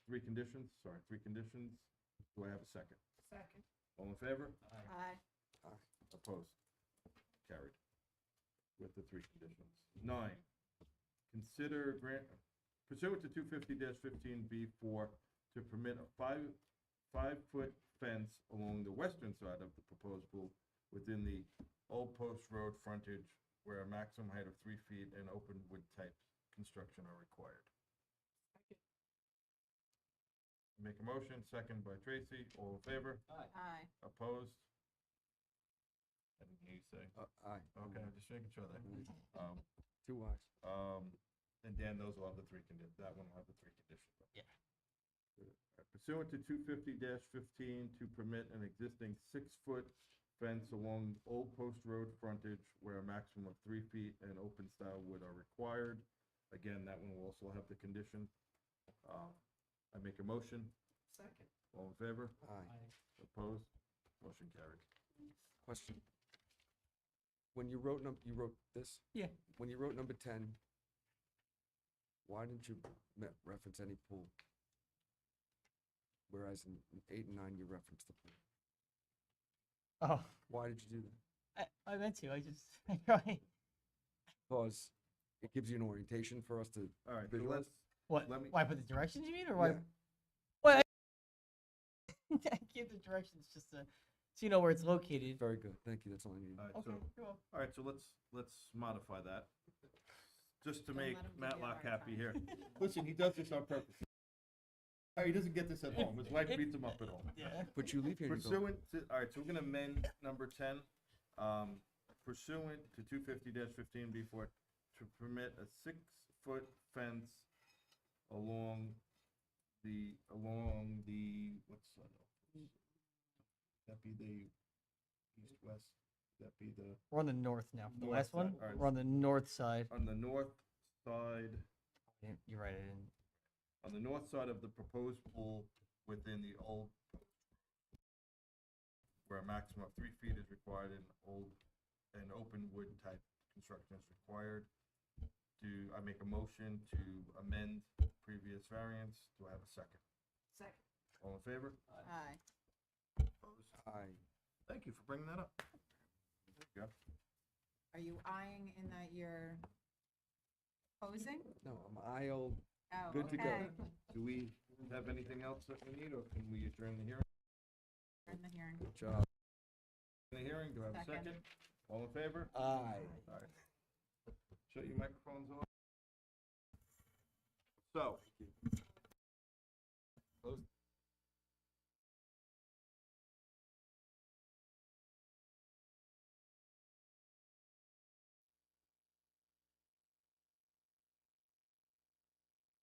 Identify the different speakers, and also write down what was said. Speaker 1: three conditions, sorry, three conditions. Do I have a second?
Speaker 2: Second.
Speaker 1: All in favor?
Speaker 2: Aye.
Speaker 1: Opposed? Carried. With the three conditions. Nine, consider grant, pursuant to two fifty fifteen B four to permit a five, five-foot fence along the western side of the proposed pool within the Old Post Road frontage where a maximum height of three feet and open wood type construction are required. Make a motion, second by Tracy, all in favor?
Speaker 2: Aye.
Speaker 1: Opposed? I didn't hear you say.
Speaker 3: Uh, aye.
Speaker 1: Okay, I'm just making sure there. Um,
Speaker 3: Two ayes.
Speaker 1: um, and Dan, those will have the three condi, that one will have the three conditions.
Speaker 4: Yeah.
Speaker 1: Pursuant to two fifty fifteen to permit an existing six-foot fence along Old Post Road frontage where a maximum of three feet and open style wood are required. Again, that one will also have the condition. Um, I make a motion,
Speaker 2: Second.
Speaker 1: all in favor?
Speaker 3: Aye.
Speaker 1: Opposed? Motion carried.
Speaker 3: Question. When you wrote num, you wrote this?
Speaker 4: Yeah.
Speaker 3: When you wrote number ten, why didn't you me- reference any pool? Whereas in in eight and nine, you referenced the pool.
Speaker 4: Oh,
Speaker 3: Why did you do that?
Speaker 4: I, I meant to. I just I probably
Speaker 3: Because it gives you an orientation for us to,
Speaker 1: All right, so
Speaker 3: Visualize?
Speaker 1: let's,
Speaker 4: what?
Speaker 1: Let me-
Speaker 4: Why put the directions you mean, or why?
Speaker 3: Yeah.
Speaker 4: Well, I, I give the directions just to, so you know where it's located.
Speaker 3: very good, thank you, that's all I needed.
Speaker 1: all right,
Speaker 4: Okay.
Speaker 1: so
Speaker 4: you're welcome.
Speaker 1: All right, so let's, let's modify that, just to
Speaker 2: Don't
Speaker 1: make
Speaker 2: let him give you a
Speaker 1: Matlock
Speaker 2: hard
Speaker 1: happy
Speaker 2: time.
Speaker 1: here. Listen, he does this on purpose. All right, he doesn't get this at home, his wife beats him up at home.
Speaker 4: Yeah.
Speaker 3: But you leave here and you go,
Speaker 1: Pursuant to, all right, so we're gonna amend number ten, um, pursuant to two fifty fifteen B four, to permit a six-foot fence along the, along the, what's that? That be the east-west, that be the.
Speaker 4: We're on the north now. For the
Speaker 1: North
Speaker 4: last
Speaker 1: side,
Speaker 4: one,
Speaker 1: alright.
Speaker 4: we're on the north side.
Speaker 1: on the north side,
Speaker 4: Yeah, You're right. I didn't.
Speaker 1: on the north side of the proposed pool within the old where a maximum of three feet is required and old, and open wood type construction is required. Do I make a motion to amend previous variance? Do I have a second?
Speaker 2: Second.
Speaker 1: All in favor?
Speaker 2: Aye.
Speaker 1: Opposed?
Speaker 3: aye,
Speaker 1: Thank you for bringing that up. There you go.
Speaker 2: Are you eyeing in that you're opposing?
Speaker 3: no, I'm aye all,
Speaker 2: Oh,
Speaker 3: Good to go.
Speaker 2: okay.
Speaker 1: Do we have anything else that we need or can we adjourn the hearing?
Speaker 2: We're In the hearing.
Speaker 3: good job,
Speaker 1: The hearing, do I have a second?
Speaker 2: Second.
Speaker 1: All in favor?
Speaker 3: aye.
Speaker 1: Alright. Shut your microphones off. So. Close